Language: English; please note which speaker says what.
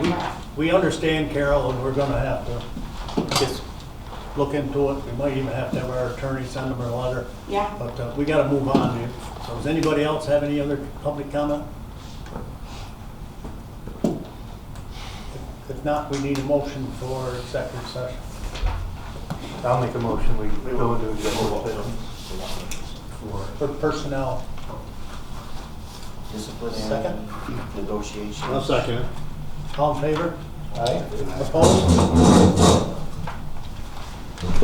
Speaker 1: We understand, Carol, and we're gonna have to just look into it. We might even have to have our attorney send them a letter.
Speaker 2: Yeah.
Speaker 1: But uh, we gotta move on here. So does anybody else have any other public comment? If not, we need a motion for executive session.
Speaker 3: I'll make a motion, we we go into executive session.
Speaker 1: For personnel,
Speaker 4: Disciplinary
Speaker 1: Second?
Speaker 4: negotiation.
Speaker 5: I'll second it.
Speaker 1: all in favor?
Speaker 3: Aye.
Speaker 1: Opposed?